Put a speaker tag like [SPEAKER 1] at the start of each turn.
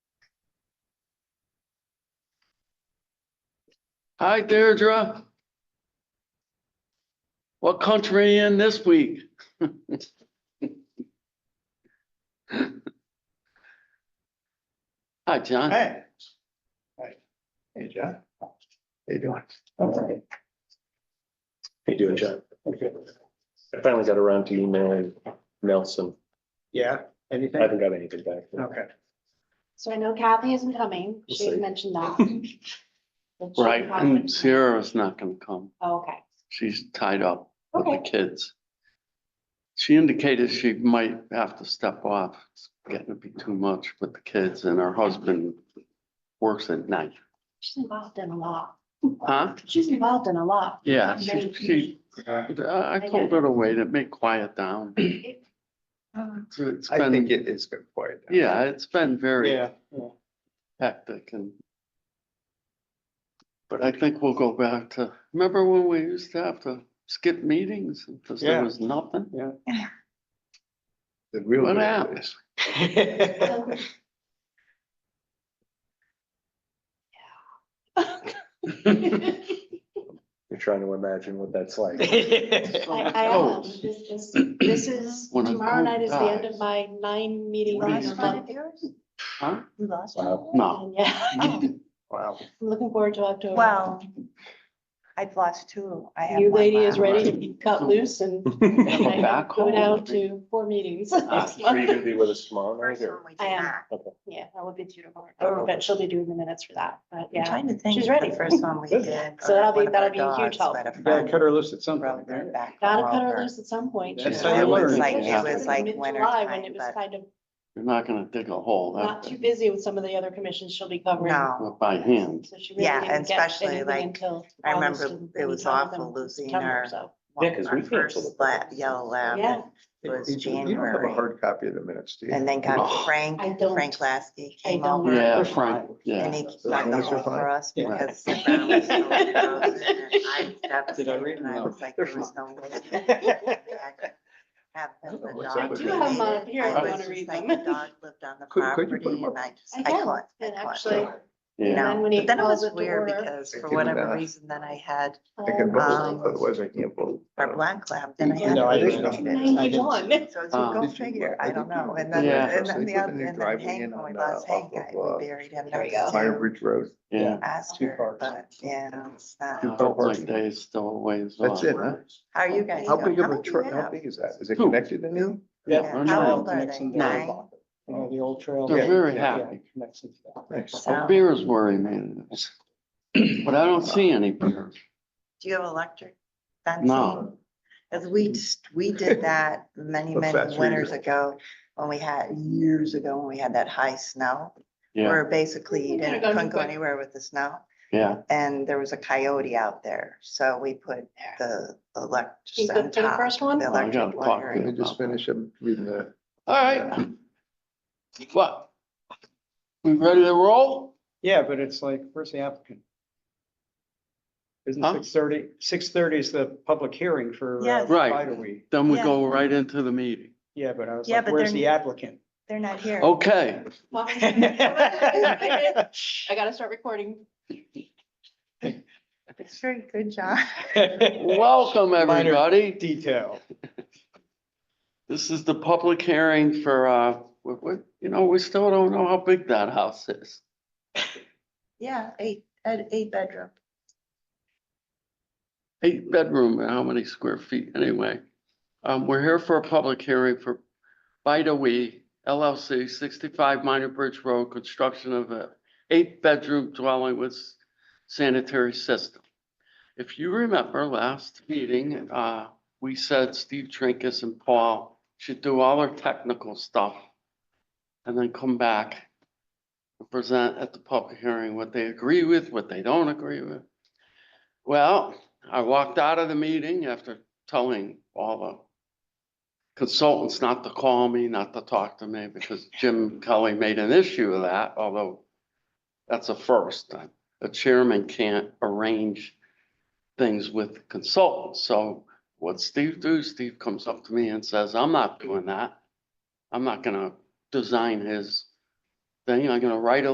[SPEAKER 1] Hi, Deirdre. What country in this week? Hi, John.
[SPEAKER 2] Hey. Hey. Hey, John. How you doing? Alright.
[SPEAKER 3] How you doing, John? I finally got around to emailing Nelson.
[SPEAKER 2] Yeah,
[SPEAKER 3] I
[SPEAKER 2] anything?
[SPEAKER 3] haven't got anything back.
[SPEAKER 2] Okay.
[SPEAKER 4] So I know Kathy isn't coming.
[SPEAKER 3] We'll
[SPEAKER 4] She had
[SPEAKER 3] see.
[SPEAKER 4] mentioned that. That she
[SPEAKER 1] Right, Mm.
[SPEAKER 4] hasn't.
[SPEAKER 1] and Sierra's not gonna come.
[SPEAKER 4] Oh, Okay,
[SPEAKER 1] She's tied up with the
[SPEAKER 4] okay,
[SPEAKER 1] kids. She indicated she might have to step off. It's getting to be too much with the kids and her husband works at night.
[SPEAKER 4] she's involved in a lot.
[SPEAKER 1] Huh?
[SPEAKER 4] She's involved in a lot.
[SPEAKER 1] Yeah, she,
[SPEAKER 4] Many
[SPEAKER 1] she, I I told her to wait. It may quiet down.
[SPEAKER 4] people. uh,
[SPEAKER 1] It's- It's
[SPEAKER 2] I think
[SPEAKER 1] been,
[SPEAKER 2] it is good for you.
[SPEAKER 1] yeah, it's been very hectic and. But I think we'll go back to, remember when we used to have to skip meetings because there
[SPEAKER 2] Yeah.
[SPEAKER 1] was nothing?
[SPEAKER 2] The real.
[SPEAKER 1] What
[SPEAKER 2] good
[SPEAKER 1] happened?
[SPEAKER 2] is-
[SPEAKER 4] So- I,
[SPEAKER 3] You're trying to imagine what that's like.
[SPEAKER 4] I
[SPEAKER 1] Oh.
[SPEAKER 4] am, this, this, this is,
[SPEAKER 1] When a
[SPEAKER 4] tomorrow night is the end
[SPEAKER 1] goat
[SPEAKER 4] of my nine meeting.
[SPEAKER 1] What
[SPEAKER 4] month.
[SPEAKER 1] is Huh?
[SPEAKER 5] You lost
[SPEAKER 3] Wow.
[SPEAKER 5] one?
[SPEAKER 1] No.
[SPEAKER 4] Yeah, I'm
[SPEAKER 2] Wow.
[SPEAKER 4] looking forward to October.
[SPEAKER 5] Well, I've lost two. I have
[SPEAKER 4] New
[SPEAKER 5] one
[SPEAKER 4] lady is
[SPEAKER 5] left.
[SPEAKER 4] ready to be
[SPEAKER 1] Mm.
[SPEAKER 4] cut loose and
[SPEAKER 1] Have a
[SPEAKER 4] I have
[SPEAKER 1] back
[SPEAKER 4] to go
[SPEAKER 1] home.
[SPEAKER 4] down to four meetings. next
[SPEAKER 3] Are you
[SPEAKER 4] month.
[SPEAKER 3] gonna be with us tomorrow night
[SPEAKER 5] First
[SPEAKER 3] or?
[SPEAKER 5] one we
[SPEAKER 4] I
[SPEAKER 5] did
[SPEAKER 4] am.
[SPEAKER 5] not.
[SPEAKER 4] Yeah, I will be beautiful.
[SPEAKER 1] Oh.
[SPEAKER 4] Or, but she'll be doing the minutes for that, but
[SPEAKER 5] I'm
[SPEAKER 4] yeah.
[SPEAKER 5] trying to think.
[SPEAKER 4] She's
[SPEAKER 5] of the
[SPEAKER 4] ready.
[SPEAKER 5] First one we
[SPEAKER 3] Good.
[SPEAKER 5] did.
[SPEAKER 4] So that'll be-
[SPEAKER 5] one of
[SPEAKER 4] that'll
[SPEAKER 5] our
[SPEAKER 4] be a huge
[SPEAKER 5] dogs
[SPEAKER 4] help.
[SPEAKER 5] let a
[SPEAKER 2] You gotta
[SPEAKER 5] friend
[SPEAKER 2] cut her loose at some
[SPEAKER 5] rode
[SPEAKER 2] point.
[SPEAKER 5] their
[SPEAKER 2] right?
[SPEAKER 5] back
[SPEAKER 4] Gotta
[SPEAKER 5] all
[SPEAKER 4] cut her
[SPEAKER 5] over.
[SPEAKER 4] loose at some point.
[SPEAKER 2] That's
[SPEAKER 4] you
[SPEAKER 2] how
[SPEAKER 4] know?
[SPEAKER 2] you learn. It was
[SPEAKER 1] like- it
[SPEAKER 4] Yeah.
[SPEAKER 1] was
[SPEAKER 5] like
[SPEAKER 4] Mid-July
[SPEAKER 5] wintertime,
[SPEAKER 4] When it was
[SPEAKER 5] but-
[SPEAKER 4] kind of
[SPEAKER 1] You're not gonna dig a hole.
[SPEAKER 4] not
[SPEAKER 1] That's
[SPEAKER 4] too busy with some of the other commissions she'll be covering.
[SPEAKER 5] No,
[SPEAKER 1] by hand.
[SPEAKER 4] So she really
[SPEAKER 5] Yeah,
[SPEAKER 4] didn't
[SPEAKER 5] and
[SPEAKER 4] get
[SPEAKER 5] especially,
[SPEAKER 4] anything
[SPEAKER 5] like,
[SPEAKER 4] until
[SPEAKER 5] I remember
[SPEAKER 4] August and
[SPEAKER 5] it was
[SPEAKER 4] anytime then
[SPEAKER 5] awful losing
[SPEAKER 4] September,
[SPEAKER 5] her.
[SPEAKER 4] so,
[SPEAKER 3] Yeah, 'cause
[SPEAKER 5] our
[SPEAKER 3] we canceled
[SPEAKER 5] first
[SPEAKER 3] the
[SPEAKER 5] la-
[SPEAKER 3] first.
[SPEAKER 5] Yellow
[SPEAKER 4] Yeah,
[SPEAKER 5] lab. It was
[SPEAKER 2] You don't have a
[SPEAKER 5] January.
[SPEAKER 2] hard copy of the minutes, do you?
[SPEAKER 5] And then
[SPEAKER 1] Oh.
[SPEAKER 5] got
[SPEAKER 4] I
[SPEAKER 5] Frank,
[SPEAKER 4] don't.
[SPEAKER 5] Frank Lasky
[SPEAKER 4] I
[SPEAKER 5] came
[SPEAKER 4] don't.
[SPEAKER 5] over.
[SPEAKER 1] Yeah, Frank,
[SPEAKER 5] And
[SPEAKER 1] yeah.
[SPEAKER 5] he
[SPEAKER 2] So
[SPEAKER 5] got
[SPEAKER 2] long
[SPEAKER 5] the
[SPEAKER 2] as you're
[SPEAKER 5] hole for
[SPEAKER 2] fine.
[SPEAKER 5] us
[SPEAKER 2] Yeah.
[SPEAKER 5] because the ground was so frozen and I was devastated and I
[SPEAKER 2] No.
[SPEAKER 5] was like,
[SPEAKER 2] They're
[SPEAKER 5] there was no way. I could Have them, the
[SPEAKER 2] I
[SPEAKER 5] dog.
[SPEAKER 2] do have
[SPEAKER 5] lived
[SPEAKER 4] mine
[SPEAKER 5] in-
[SPEAKER 4] here
[SPEAKER 5] I
[SPEAKER 4] if
[SPEAKER 1] you
[SPEAKER 5] was
[SPEAKER 4] wanna
[SPEAKER 5] just
[SPEAKER 4] read
[SPEAKER 5] like,
[SPEAKER 4] them.
[SPEAKER 5] the Dog lived on the
[SPEAKER 2] Could- could you put
[SPEAKER 5] property
[SPEAKER 2] them up?
[SPEAKER 5] and I just,
[SPEAKER 4] I
[SPEAKER 5] I
[SPEAKER 4] can,
[SPEAKER 5] couldn't. I
[SPEAKER 4] and
[SPEAKER 5] couldn't.
[SPEAKER 4] actually-
[SPEAKER 5] You
[SPEAKER 1] Yeah,
[SPEAKER 4] And
[SPEAKER 5] know,
[SPEAKER 4] when he
[SPEAKER 5] but then it
[SPEAKER 4] calls
[SPEAKER 5] was
[SPEAKER 4] it to
[SPEAKER 5] weird
[SPEAKER 4] order-
[SPEAKER 5] because
[SPEAKER 2] I
[SPEAKER 5] for
[SPEAKER 2] can,
[SPEAKER 5] whatever
[SPEAKER 2] uh,
[SPEAKER 5] reason, then I had
[SPEAKER 2] I can
[SPEAKER 4] um,
[SPEAKER 2] vote,
[SPEAKER 5] Um,
[SPEAKER 2] otherwise I can't vote.
[SPEAKER 5] our black lab, then I
[SPEAKER 2] You
[SPEAKER 5] had.
[SPEAKER 2] know, I
[SPEAKER 5] it
[SPEAKER 2] didn't know.
[SPEAKER 5] vaccinated.
[SPEAKER 2] I didn't-
[SPEAKER 4] 91.
[SPEAKER 5] So it's
[SPEAKER 1] Uh,
[SPEAKER 5] a go
[SPEAKER 2] Did you-
[SPEAKER 5] figure,
[SPEAKER 2] I
[SPEAKER 5] I
[SPEAKER 2] did
[SPEAKER 5] don't know,
[SPEAKER 2] you-
[SPEAKER 5] and
[SPEAKER 1] I
[SPEAKER 5] then,
[SPEAKER 1] did
[SPEAKER 5] and
[SPEAKER 2] you-
[SPEAKER 5] then the
[SPEAKER 2] Yeah.
[SPEAKER 5] other, and then
[SPEAKER 2] Driving in
[SPEAKER 5] Hank, when
[SPEAKER 2] on,
[SPEAKER 5] we
[SPEAKER 2] uh,
[SPEAKER 5] lost Hank,
[SPEAKER 2] off
[SPEAKER 5] I
[SPEAKER 2] of, uh,
[SPEAKER 5] we buried him,
[SPEAKER 4] There we
[SPEAKER 5] next
[SPEAKER 4] go.
[SPEAKER 5] to
[SPEAKER 2] Fire Bridge Road.
[SPEAKER 1] yeah.
[SPEAKER 2] Two
[SPEAKER 5] Astor,
[SPEAKER 2] cars.
[SPEAKER 5] but, yeah, it's not.
[SPEAKER 2] Two
[SPEAKER 1] Felt
[SPEAKER 2] cars.
[SPEAKER 1] like days still a ways off.
[SPEAKER 2] That's it, huh?
[SPEAKER 5] How are you guys?
[SPEAKER 2] How
[SPEAKER 5] doing?
[SPEAKER 2] big of a
[SPEAKER 5] many you
[SPEAKER 2] trail, how
[SPEAKER 5] have?
[SPEAKER 2] big is that? Is it
[SPEAKER 1] Two.
[SPEAKER 2] connected to new?
[SPEAKER 5] Yeah,
[SPEAKER 1] Or
[SPEAKER 5] How
[SPEAKER 1] no.
[SPEAKER 5] old are they? Nine?
[SPEAKER 6] You know, the old trail.
[SPEAKER 1] They're
[SPEAKER 6] Yeah,
[SPEAKER 1] very
[SPEAKER 6] yeah,
[SPEAKER 1] happy.
[SPEAKER 6] it connects into that.
[SPEAKER 2] Nice.
[SPEAKER 1] Well,
[SPEAKER 5] So,
[SPEAKER 1] Oh, Beer is where he made it. But I don't see any beer.
[SPEAKER 5] do you have electric
[SPEAKER 1] No.
[SPEAKER 5] fencing? As we, just- we did that many,
[SPEAKER 2] The
[SPEAKER 5] many
[SPEAKER 2] fence
[SPEAKER 5] winters
[SPEAKER 2] reader.
[SPEAKER 5] ago, when we had, years ago, when we had that high snow.
[SPEAKER 1] Yeah,
[SPEAKER 5] Where basically you
[SPEAKER 4] You could've
[SPEAKER 5] didn't,
[SPEAKER 4] gone
[SPEAKER 5] couldn't go
[SPEAKER 4] quick.
[SPEAKER 5] anywhere with the snow,
[SPEAKER 1] yeah.
[SPEAKER 5] and there was a coyote out there, so we put the
[SPEAKER 4] You
[SPEAKER 5] electric
[SPEAKER 4] good
[SPEAKER 5] on
[SPEAKER 4] for the
[SPEAKER 5] top.
[SPEAKER 4] first one?
[SPEAKER 5] the
[SPEAKER 1] I
[SPEAKER 2] Oh,
[SPEAKER 1] gotta
[SPEAKER 5] electric
[SPEAKER 1] talk
[SPEAKER 5] wire.
[SPEAKER 2] Let me just finish up reading the.
[SPEAKER 1] All right. What? We ready to roll?
[SPEAKER 6] Yeah, but it's like, where's the applicant? Isn't
[SPEAKER 1] Huh?
[SPEAKER 6] six thirty? Six thirty is the public hearing for. uh,
[SPEAKER 5] Yes.
[SPEAKER 1] Right.
[SPEAKER 6] Spider Week.
[SPEAKER 1] Then we
[SPEAKER 5] Yeah.
[SPEAKER 1] go right into the meeting.
[SPEAKER 6] Yeah, but I was
[SPEAKER 5] Yeah,
[SPEAKER 6] like,
[SPEAKER 5] but
[SPEAKER 6] where's
[SPEAKER 5] they're-
[SPEAKER 6] the applicant?
[SPEAKER 5] They're not here.
[SPEAKER 2] Oh.
[SPEAKER 1] Okay,
[SPEAKER 4] Well, I
[SPEAKER 6] Well,
[SPEAKER 4] gotta start recording.
[SPEAKER 5] It's very good job.
[SPEAKER 1] welcome everybody.
[SPEAKER 6] Detail.
[SPEAKER 1] This is the public hearing for, uh, what, what, you know, we still don't know how big that house is.
[SPEAKER 5] Yeah, eight, at eight bedroom.
[SPEAKER 1] Eight bedroom, and how many square feet anyway? Um, we're here for a public hearing for Bida We LLC, sixty-five Minor Bridge Road, construction of a eight-bedroom dwelling with sanitary system. If you remember last meeting, uh, we said Steve Trinkus and Paul should do all their technical stuff and then come back and present at the public hearing what they agree with, what they don't agree with. Well, I walked out of the meeting after telling all the consultants not to call me, not to talk to me, because Jim Kelly made an issue of that, although that's a first. A chairman can't arrange things with consultants. So what Steve do, Steve comes up to me and says, I'm not doing that. I'm not gonna design his thing. I'm gonna write a